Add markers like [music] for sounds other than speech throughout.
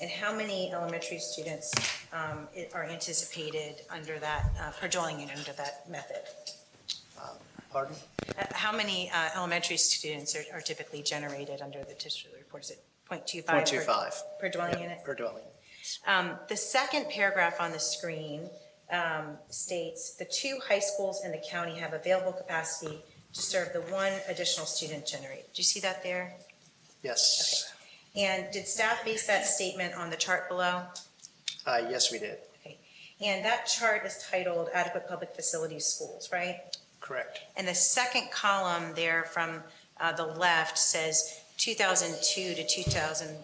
And how many elementary students um, i- are anticipated under that, uh, per dwelling unit under that method? Pardon? Uh, How many uh, elementary students are are typically generated under the district report? Is it 0.25? per- 0.25. Per dwelling Yeah, unit? Per dwelling. Um, The second paragraph on the screen um, states, "The two high schools in the county have available capacity to serve the one additional student generated." Do you see that there? Yes. And did staff base that statement on the chart below? Uh, yes, we did. And that chart is titled adequate public facilities schools, right? Correct. And the second column there from uh, the left says 2002 to 2000,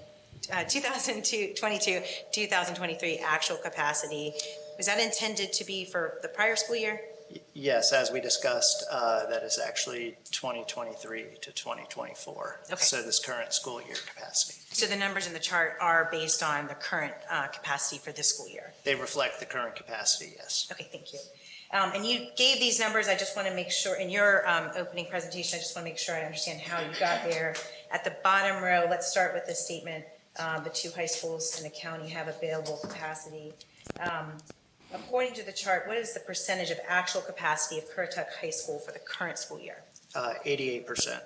uh, 2002, 22, 2023 actual capacity. Was that intended to be for the prior school year? Y- Yes, as we discussed, uh, that is actually 2023 to 2024. Okay. So this current school year capacity. So the numbers in the chart are based on the current uh, capacity for this school year? They reflect the current capacity, yes. Okay, thank you. Um, And you gave these numbers, I just want to make sure, in your um, opening presentation, I just want to make sure I understand how you got there. At the bottom row, let's start with the statement, uh, the two high schools in the county have available capacity. Um, According to the chart, what is the percentage of actual capacity of Currituck High School for the current school year? Uh, 88%.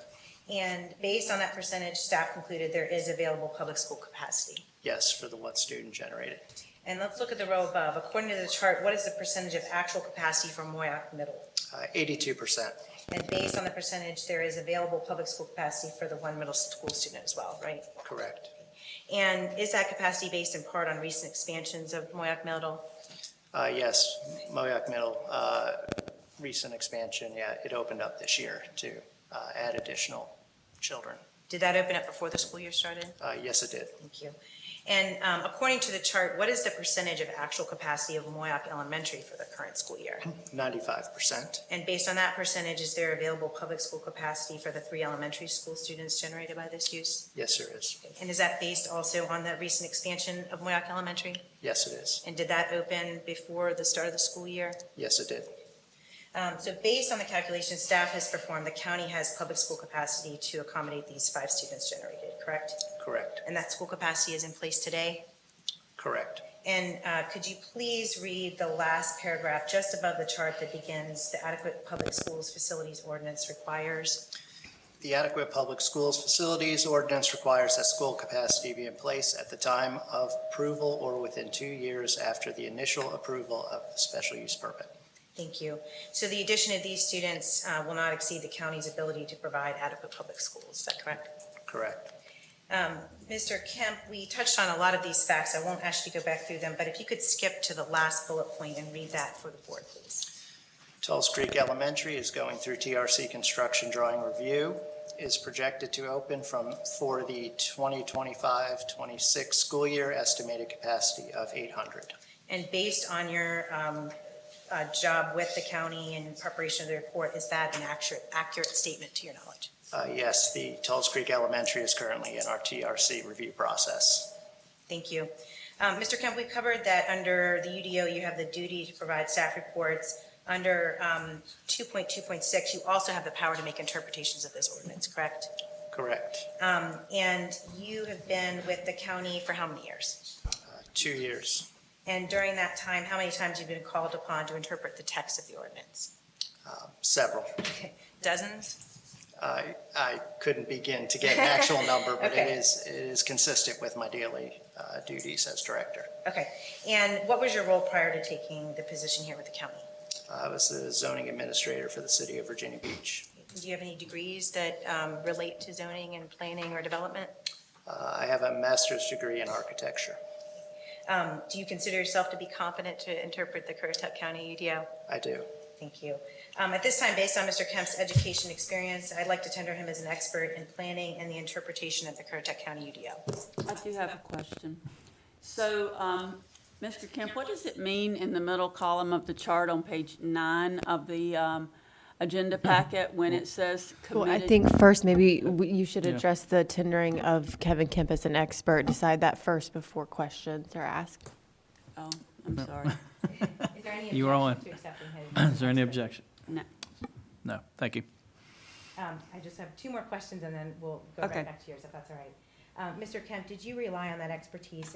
And based on that percentage, staff concluded there is available public school capacity. Yes, for the one student generated. And let's look at the row above. According to the chart, what is the percentage of actual capacity for Moyac Middle? Uh, 82%. And based on the percentage, there is available public school capacity for the one middle school student as well, right? Correct. And is that capacity based in part on recent expansions of Moyac Middle? Uh, yes, Moayak Middle, uh, recent expansion, yeah, it opened up this year to, uh, add additional children. Did that open up before the school year started? Uh, yes, it did. Thank you. And um, according to the chart, what is the percentage of actual capacity of Moyac Elementary for the current school year? 95%. And based on that percentage, is there available public school capacity for the three elementary school students generated by this use? Yes, there is. And is that based also on the recent expansion of Moyac Elementary? Yes, it is. And did that open before the start of the school year? Yes, it did. Um, So based on the calculation staff has performed, the county has public school capacity to accommodate these five students generated, correct? Correct. And that school capacity is in place today? Correct. And uh, could you please read the last paragraph just above the chart that begins, "The adequate public schools facilities ordinance requires"? The adequate public schools facilities ordinance requires that school capacity be in place at the time of approval or within two years after the initial approval of the special use permit. Thank you. So the addition of these students uh, will not exceed the county's ability to provide adequate public schools, is that correct? Correct. Um, Mr. Kemp, we touched on a lot of these facts. I won't ask you to go back through them, but if you could skip to the last bullet point and read that for the board, please. Tulse Creek Elementary is going through TRC construction drawing review, is projected to open from, for the 2025-26 school year, estimated capacity of 800. And based on your um, uh, job with the county and preparation of the report, is that an accurate, accurate statement to your knowledge? Uh, Yes, the Tulse Creek Elementary is currently in our TRC review process. Thank you. Um, Mr. Kemp, we covered that under the UDO, you have the duty to provide staff reports. Under um, 2.2.6, you also have the power to make interpretations of this ordinance, correct? Correct. Um, And you have been with the county for how many years? Uh, Two years. And during that time, how many times have you been called upon to interpret the text of the ordinance? Um, Several. Dozens? I, I couldn't begin to get an actual number, but it Okay. is, it is consistent with my daily uh, duties as director. Okay. And what was your role prior to taking the position here with the county? Uh, I was the zoning administrator for the city of Virginia Beach. Do you have any degrees that um, relate to zoning and planning or development? Uh, I have a master's degree in architecture. Um, Do you consider yourself to be competent to interpret the Currituck County UDO? I do. Thank you. Um, At this time, based on Mr. Kemp's education experience, I'd like to tender him as an expert in planning and the interpretation of the Currituck County E UDO. I do have a question. So, um, Mr. Kemp, what does it mean in the middle column of the chart on page nine of the, um, agenda packet when it says Well, I committed? think first, maybe w- you should address the tendering of Kevin Kemp as an expert. Decide that first before questions are asked. Oh, I'm sorry. [laughs] Is there any You are on. objection to accepting his? [clears throat] Is there any objection? No. No, thank you. Um, I just have two more questions, and then we'll go right Um, Okay. back to yours, if that's all right. Uh, Mr. Kemp, did you rely on that expertise